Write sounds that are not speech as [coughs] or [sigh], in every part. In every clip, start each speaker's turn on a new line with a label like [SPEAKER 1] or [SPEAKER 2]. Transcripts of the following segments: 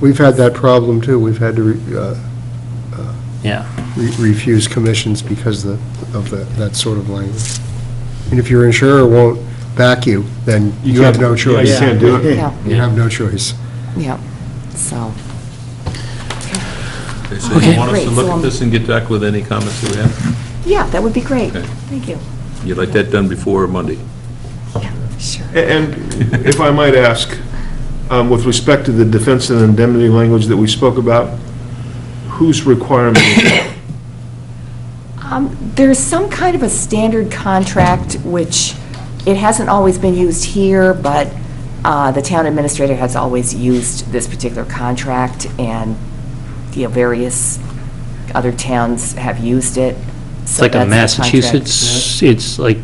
[SPEAKER 1] We've had that problem, too. We've had to re- uh,
[SPEAKER 2] yeah.
[SPEAKER 1] re- refuse commissions because of the- of the- that sort of language. And if your insurer won't back you, then you have no
[SPEAKER 3] can't- yeah,
[SPEAKER 1] choice.
[SPEAKER 3] You can't do it.
[SPEAKER 4] Yeah,
[SPEAKER 1] You have no choice.
[SPEAKER 4] yeah, so,
[SPEAKER 5] Okay, so you want us
[SPEAKER 4] Great,
[SPEAKER 5] to
[SPEAKER 4] so um,
[SPEAKER 5] look
[SPEAKER 4] I'm-
[SPEAKER 5] at this and get back with any comments that we have?
[SPEAKER 4] yeah, that would be great.
[SPEAKER 5] Okay.
[SPEAKER 4] Thank you.
[SPEAKER 5] You'd like that done before Monday?
[SPEAKER 4] Yeah, sure.
[SPEAKER 3] A- And if I might ask, um, with respect to the defense and indemnity language that we spoke about, whose requirement is that?
[SPEAKER 4] Um, There's some kind of a standard contract, which it hasn't always been used here, but uh, the town administrator has always used this particular contract, and, you know, various other towns have used it.
[SPEAKER 2] It's like a Massachusetts, it's like,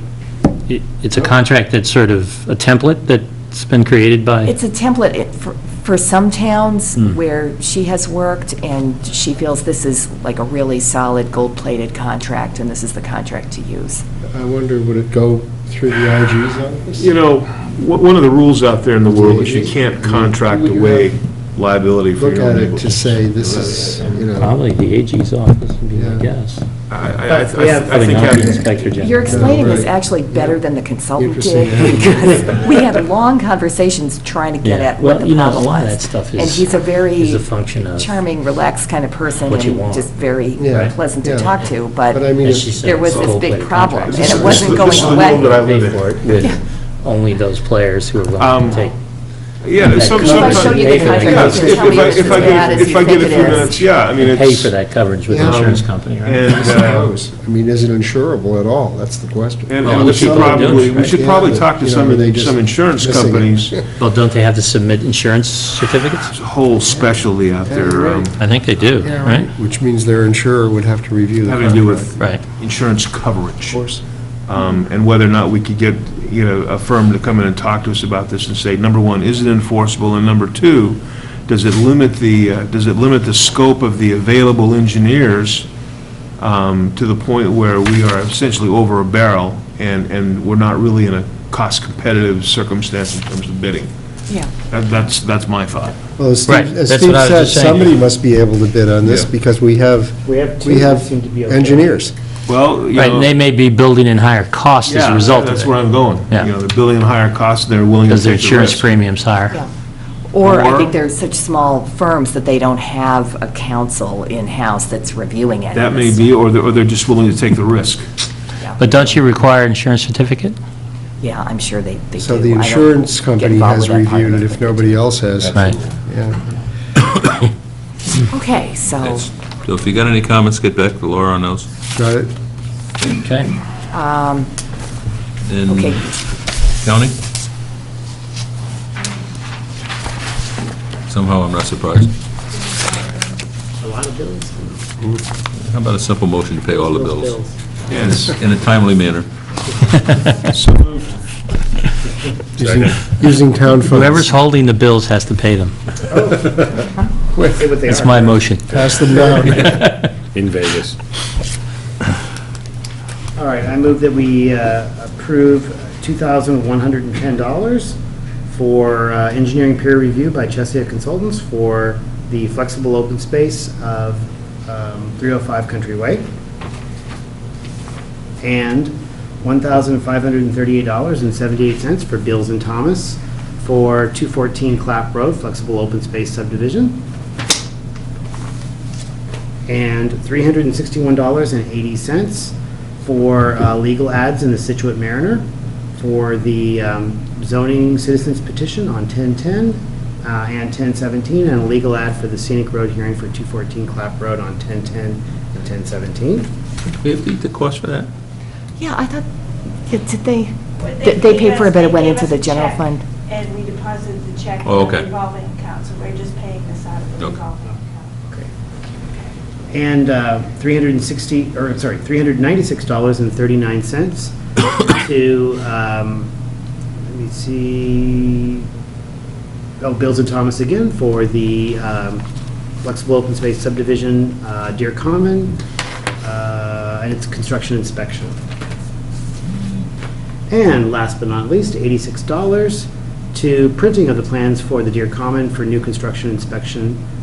[SPEAKER 2] it- it's
[SPEAKER 4] Oh.
[SPEAKER 2] a contract that's sort of a template that's been created by,
[SPEAKER 4] It's a template it- for- for some towns
[SPEAKER 2] Hmm.
[SPEAKER 4] where she has worked, and she feels this is like a really solid gold-plated contract, and this is the contract to use.
[SPEAKER 1] I wonder, would it go through the IG's office?
[SPEAKER 3] You know, one one of the rules out there in the world is you can't contract away liability for
[SPEAKER 1] Look
[SPEAKER 3] your own
[SPEAKER 1] at it to
[SPEAKER 3] negligence.
[SPEAKER 1] say, this is, you know,
[SPEAKER 2] probably the AG's office, would be
[SPEAKER 1] Yeah.
[SPEAKER 2] my guess.
[SPEAKER 3] I- I- I-
[SPEAKER 2] But we have-
[SPEAKER 3] I think
[SPEAKER 2] Probably not the
[SPEAKER 3] having,
[SPEAKER 2] Inspector General.
[SPEAKER 4] You're explaining this
[SPEAKER 1] Right.
[SPEAKER 4] actually better than the consultant
[SPEAKER 1] Interesting.
[SPEAKER 4] did,
[SPEAKER 1] [laughs]
[SPEAKER 4] [laughs] because we had long conversations trying to get
[SPEAKER 2] Yeah.
[SPEAKER 4] at what
[SPEAKER 2] Well,
[SPEAKER 4] the
[SPEAKER 2] you know,
[SPEAKER 4] problem
[SPEAKER 2] a lot of
[SPEAKER 4] was.
[SPEAKER 2] that stuff
[SPEAKER 4] And
[SPEAKER 2] is-
[SPEAKER 4] he's a
[SPEAKER 2] is a
[SPEAKER 4] very
[SPEAKER 2] function of-
[SPEAKER 4] charming, relaxed kind of person,
[SPEAKER 2] What you
[SPEAKER 4] and
[SPEAKER 2] want.
[SPEAKER 4] just very
[SPEAKER 1] Yeah.
[SPEAKER 4] pleasant
[SPEAKER 1] Yeah.
[SPEAKER 4] to talk to,
[SPEAKER 1] but I
[SPEAKER 4] but
[SPEAKER 1] mean,
[SPEAKER 2] As she
[SPEAKER 1] if-
[SPEAKER 2] said,
[SPEAKER 4] there was
[SPEAKER 2] it's a
[SPEAKER 4] this big
[SPEAKER 2] gold-plated
[SPEAKER 4] problem,
[SPEAKER 2] contract.
[SPEAKER 4] and
[SPEAKER 3] This
[SPEAKER 4] it
[SPEAKER 3] is-
[SPEAKER 4] wasn't
[SPEAKER 3] this is the
[SPEAKER 4] going
[SPEAKER 3] world that
[SPEAKER 4] away.
[SPEAKER 3] I live
[SPEAKER 2] Pay
[SPEAKER 3] in.
[SPEAKER 2] for it with only those players who are willing
[SPEAKER 3] Um,
[SPEAKER 2] to take.
[SPEAKER 3] yeah,
[SPEAKER 2] That
[SPEAKER 3] some,
[SPEAKER 2] coverage. If I show
[SPEAKER 3] some.
[SPEAKER 2] you the contract, you
[SPEAKER 3] Yes,
[SPEAKER 2] can
[SPEAKER 3] if-
[SPEAKER 2] tell me
[SPEAKER 3] if I-
[SPEAKER 2] it's
[SPEAKER 3] if I
[SPEAKER 2] as
[SPEAKER 3] get-
[SPEAKER 4] bad as you
[SPEAKER 3] If I
[SPEAKER 4] think
[SPEAKER 3] get a
[SPEAKER 4] it
[SPEAKER 3] few
[SPEAKER 4] is.
[SPEAKER 3] minutes, yeah, I mean, it's.
[SPEAKER 2] pay for that coverage with
[SPEAKER 1] Yeah.
[SPEAKER 2] the insurance company, right?
[SPEAKER 3] And,
[SPEAKER 1] I
[SPEAKER 3] uh,
[SPEAKER 1] suppose. I mean, is it insurable at all? That's the question.
[SPEAKER 3] and
[SPEAKER 2] Well,
[SPEAKER 3] and we
[SPEAKER 2] that's
[SPEAKER 3] should
[SPEAKER 2] what they're doing,
[SPEAKER 3] probably, we
[SPEAKER 2] right?
[SPEAKER 3] should
[SPEAKER 1] Yeah,
[SPEAKER 3] probably
[SPEAKER 1] but,
[SPEAKER 3] talk to
[SPEAKER 1] you know, they
[SPEAKER 3] some,
[SPEAKER 1] just
[SPEAKER 3] some insurance
[SPEAKER 1] missing it.
[SPEAKER 3] companies,
[SPEAKER 2] Well, don't they have to submit insurance certificates?
[SPEAKER 3] There's a whole specialty out there, um,
[SPEAKER 2] I think they do, right?
[SPEAKER 1] Which means their insurer would have to review the
[SPEAKER 3] having to do
[SPEAKER 1] contract.
[SPEAKER 3] with
[SPEAKER 2] Right.
[SPEAKER 3] insurance coverage.
[SPEAKER 1] Of course.
[SPEAKER 3] um, and whether or not we could get, you know, a firm to come in and talk to us about this and say, number one, is it enforceable? And number two, does it limit the, uh, does it limit the scope of the available engineers um, to the point where we are essentially over a barrel and, and we're not really in a cost-competitive circumstance in terms of bidding?
[SPEAKER 4] Yeah.
[SPEAKER 3] That- That's, that's my thought.
[SPEAKER 1] Well, as
[SPEAKER 2] Right,
[SPEAKER 1] Steve as
[SPEAKER 2] that's
[SPEAKER 1] Steve
[SPEAKER 2] what I was
[SPEAKER 1] said,
[SPEAKER 2] just saying.
[SPEAKER 1] somebody must be able to bid on this
[SPEAKER 3] Yeah.
[SPEAKER 1] because we have,
[SPEAKER 6] We have two
[SPEAKER 1] we
[SPEAKER 6] that
[SPEAKER 1] have
[SPEAKER 6] seem to be okay.
[SPEAKER 1] engineers.
[SPEAKER 3] Well, you
[SPEAKER 2] Right, and they
[SPEAKER 3] know,
[SPEAKER 2] may be building in higher cost as a
[SPEAKER 3] yeah,
[SPEAKER 2] result
[SPEAKER 3] that's
[SPEAKER 2] of
[SPEAKER 3] where
[SPEAKER 2] it,
[SPEAKER 3] I'm going.
[SPEAKER 2] Yeah.
[SPEAKER 3] You know, they're billing higher costs, they're willing to
[SPEAKER 2] because
[SPEAKER 3] take the
[SPEAKER 2] their
[SPEAKER 3] risk.
[SPEAKER 2] insurance premium's higher.
[SPEAKER 4] Yeah. Or I
[SPEAKER 3] Or-
[SPEAKER 4] think they're such small firms that they don't have a counsel in-house that's reviewing it.
[SPEAKER 3] That may be, or they're, or they're just willing to take the risk.
[SPEAKER 2] But don't you require insurance certificate?
[SPEAKER 4] Yeah, I'm sure they they do.
[SPEAKER 1] So the
[SPEAKER 4] I don't
[SPEAKER 1] insurance
[SPEAKER 4] get
[SPEAKER 1] company
[SPEAKER 4] involved
[SPEAKER 1] has
[SPEAKER 4] with that part of
[SPEAKER 1] reviewed it if
[SPEAKER 4] but-
[SPEAKER 1] nobody else has.
[SPEAKER 2] Right.
[SPEAKER 1] Yeah.
[SPEAKER 4] [laughs] Okay, so,
[SPEAKER 5] Yes. So if you got any comments, get back to Laura on those.
[SPEAKER 1] Got it?
[SPEAKER 2] Okay.
[SPEAKER 5] And
[SPEAKER 4] okay,
[SPEAKER 5] county? Somehow I'm not surprised. How about a simple motion to pay all the bills?
[SPEAKER 3] Yes.
[SPEAKER 5] In a timely manner.
[SPEAKER 1] Using- Using town funds.
[SPEAKER 2] [laughs] Whoever's holding the bills has to pay them. That's my motion. [laughs]
[SPEAKER 1] Pass them down.
[SPEAKER 6] All right, I move that we uh, approve $2,110 for uh, engineering peer review by Chesia Consultants for the flexible open space of um, 305 Country Way, and $1,538.78 for Bills and Thomas for 214 Clap Road flexible open space subdivision, and $361.80 for uh, legal ads in the Situate Mariner for the um, zoning citizens petition on 1010 uh, and 1017, and a legal ad for the scenic road hearing for 214 Clap Road on 1010 and 1017.
[SPEAKER 5] We have the cost for that?
[SPEAKER 4] yeah, I thought, yeah, did they,
[SPEAKER 7] What
[SPEAKER 4] They- they paid
[SPEAKER 7] gave
[SPEAKER 4] for it,
[SPEAKER 7] us-
[SPEAKER 4] but it
[SPEAKER 7] they
[SPEAKER 4] went
[SPEAKER 7] gave
[SPEAKER 4] into
[SPEAKER 7] us
[SPEAKER 4] the
[SPEAKER 7] a
[SPEAKER 4] general
[SPEAKER 7] check,
[SPEAKER 4] fund.
[SPEAKER 7] And we deposited the check in
[SPEAKER 5] Oh,
[SPEAKER 7] the
[SPEAKER 5] okay.
[SPEAKER 7] revolving account, so we're just paying this out of the
[SPEAKER 5] Okay.
[SPEAKER 7] revolving account.
[SPEAKER 6] Okay. And uh, 360, or, sorry, $396.39 [coughs] to, um, let me see, oh, Bills and Thomas again for the um, flexible open space subdivision, uh, Deer Common, uh, and its construction inspection. And last but not least, $86 to printing of the plans for the Deer Common for new construction inspection